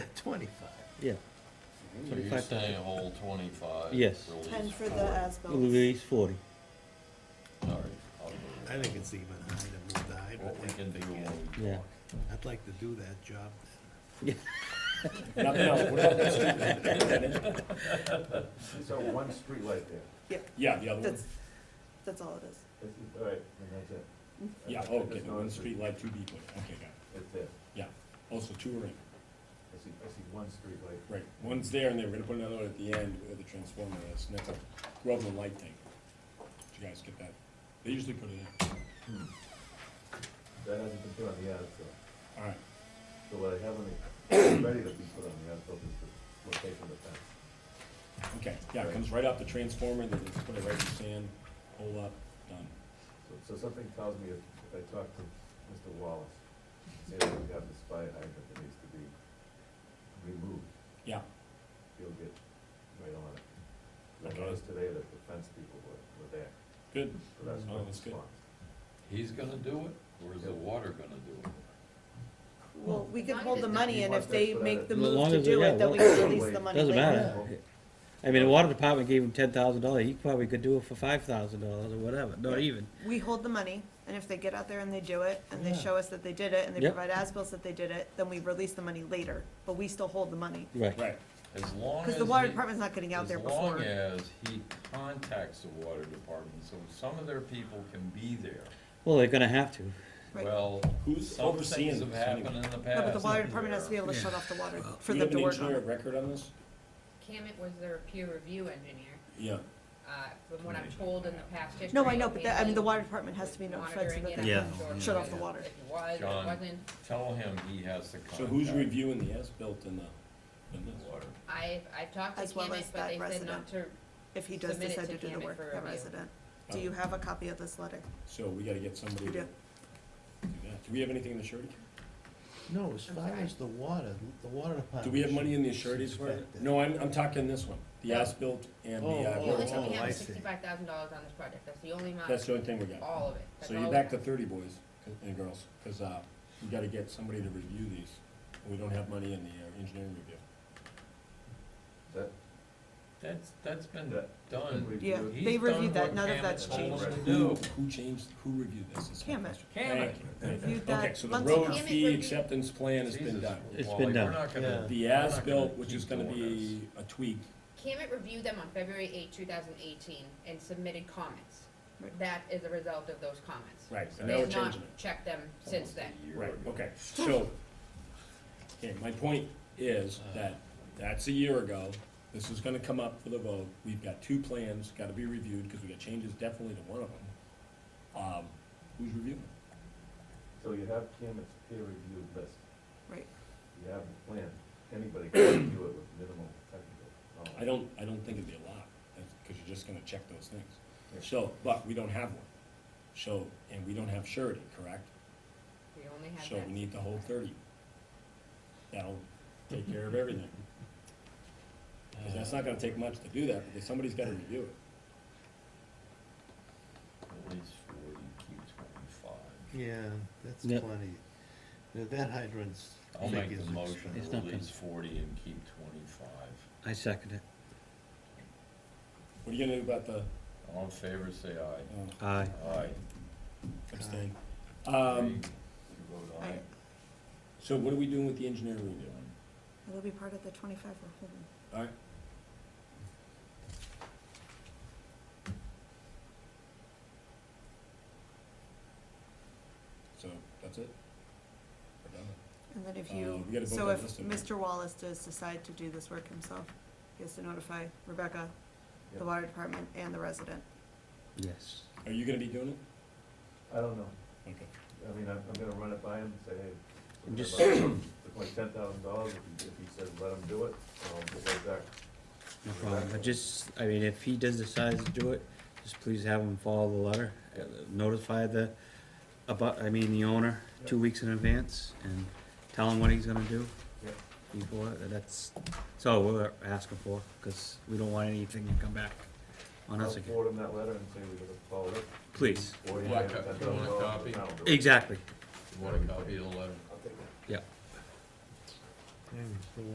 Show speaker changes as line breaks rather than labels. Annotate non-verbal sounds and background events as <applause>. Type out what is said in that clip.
<laughs> twenty-five.
yeah.
So you're
25.
saying hold twenty-five?
Yes.
release
Ten for
four.
the as-built.
Release forty.
All right, I'll do it.
I think it's even high to move the high,
What we
but
can do when we
Yeah.
talk.
I'd like to do that job.
Nothing else, what about that street?
So one street light there.
Yep,
Yeah, the other one,
that's, that's all it is.
This is- All right, and that's it.
yeah,
That's-
oh,
that's
okay, the
not a
one street light, two people, okay, got it,
It's there.
yeah, also two are in,
I see, I see one street light.
right, one's there, and they were gonna put another one at the end where the transformer is, next to Groveland Light Tank. Did you guys get that? They usually put it in,
Hmm. That hasn't been put on the as-built.
all right,
So what I have on the, ready to be put on the as-built is the location of the fence.
okay, yeah, it comes right off the transformer, they just put it right in the sand, pull up, done.
So, so something tells me if, if I talk to Mr. Wallace, and say that we have this fire hydrant that needs to be removed,
Yeah,
he'll get right on it. I
Okay.
noticed today that the fence people were, were there,
good,
so that's my
Oh, that's good.
response.
He's gonna do it, or is the water gonna do it?
Well, we could hold the
He
money, and
wants
if
us
they
for that.
make the
As long
move to
as they-
do
yeah,
it, then we can release the money
<laughs>
later.
Doesn't matter. I mean, the water department gave him ten thousand dollars, he probably could do it for five thousand dollars or whatever, not even.
We hold the money, and if they get out there and they do it, and they show us that they did it, and they
Yep.
provide as-bills that they did it, then we release the money later, but we still hold the money.
Right,
right,
As long as.
Because the water
he-
department's not getting out there before.
As long as he contacts the water department, so some of their people can be there.
well, they're gonna have to.
Right.
Well,
who's
some
overseeing
things
this
have
anyway?
happened in the past.
No, but the water department has to be able to
Yeah.
shut off the water for
Do you
them
have
to
an
work on
engineer
it.
of record on this?
Cammett was their peer review engineer,
Yeah,
uh, from what I'm told in the past history.
No, I know,
of
but that, I mean, the
Bailey
water department has to be notified so
monitoring
that
it
they
Yeah.
can
and
Yeah.
shut off the
if
water.
It was, it
John.
wasn't,
Tell him he has to contact.
so who's reviewing the as-built in the, in
the
this?
water.
I, I talked to
As well
Cammett,
as
but
that
they said not
resident.
to,
If he does
Submit it
decide
to
to do the
Cammett
work,
for
the
review.
resident. Do you have a copy of this letter?
So we gotta get somebody
We do.
to do that. Do we have anything in the surety?
No, as
I'm
far
sorry.
as the water, the water department.
Do we have money in the
should
sureties for it?
inspect
No, I'm, I'm talking this one, the as-built and the,
Oh,
we only
uh,
oh,
took
I
Cammett
see.
sixty-five thousand dollars on this project, that's the only amount,
that's the
of
only thing we got.
all of it. Oh, That's
So you're
all
back
we
to
got.
thirty boys and girls, cause, uh, we gotta get somebody to review these. We don't have money in the uh, engineering review.
That,
That's, that's been
that.
done.
Yeah,
He's
they reviewed
done what
that, none of
Hammett
that's
told him
changed.
to
Who,
do.
who changed, who reviewed this? That's my
Cammett.
question.
Cammett.
Thank you.
Reviewed
Okay,
that
so the
months ago.
road
Cammett
fee
reviewed-
acceptance plan has been
Jesus,
done.
It's
Wally,
been
we're
done.
not gonna-
Yeah.
The
we're not gonna
as-built, which is
keep
gonna
doing this.
be a tweak,
Cammett reviewed them on February eighth, two thousand eighteen, and submitted comments.
Right.
That is a result of those comments.
right, and
They
now we're
have not
changing it.
checked them since
Almost a
then.
year
Right,
ago.
okay, so, okay, my point is that, that's a year ago, this is gonna come up for the vote, we've got two plans, gotta be reviewed, because we got changes definitely to one of them. Um, who's reviewing? it?
So you have Cammett's peer reviewed list,
Right.
you have the plan, anybody can review it with minimal technical knowledge.
I don't, I don't think it'd be a lot, because you're just gonna check those things. So, but we don't have one, so, and we don't have surety, correct?
We only have
So
that.
we need the whole thirty. That'll take care of everything. Because that's not gonna take much to do that, because somebody's gotta review it.
At least forty, keep twenty-five.
Yeah, that's
Yep.
plenty. Now, That hydrant's
I'll make
figure's
the motion,
expensive.
It's not
to release forty and keep twenty-five.
I second it.
What are you gonna do about the,
All in favor, say aye.
uh,
Aye.
Aye.
abstain? Um,
You vote
I-
aye.
so what are we doing with the engineering review?
It'll be part of the twenty-five we're holding.
Alright, so that's it? We're done?
And then if
Uh,
you,
we gotta vote
so
on
if
this, don't we?
Mr. Wallace does decide to do this work himself, he has to notify Rebecca,
Yeah.
the water department, and the resident.
Yes.
Are you gonna be doing it?
I don't know,
Okay.
I mean, I'm, I'm gonna run it by him, and say, hey.
And just-
It's like ten thousand dollars, if he, if he says let him do it, I'll get right back.
No problem, but just, I mean, if he does decide to do it, just please have him follow the letter, uh, notify the, about, I mean, the owner, two weeks in advance, and tell him what he's gonna do
Yep.
before, uh, that's, that's all we're asking for, cause we don't want anything to come back on
I'll
us again,
forward him that letter and say we're gonna follow it.
please,
Or you
Black
have
co-
$10,000
you want a copy?
and I'll do it.
exactly.
You want a copy of the letter?
I'll take it.
Yeah.
Yeah, the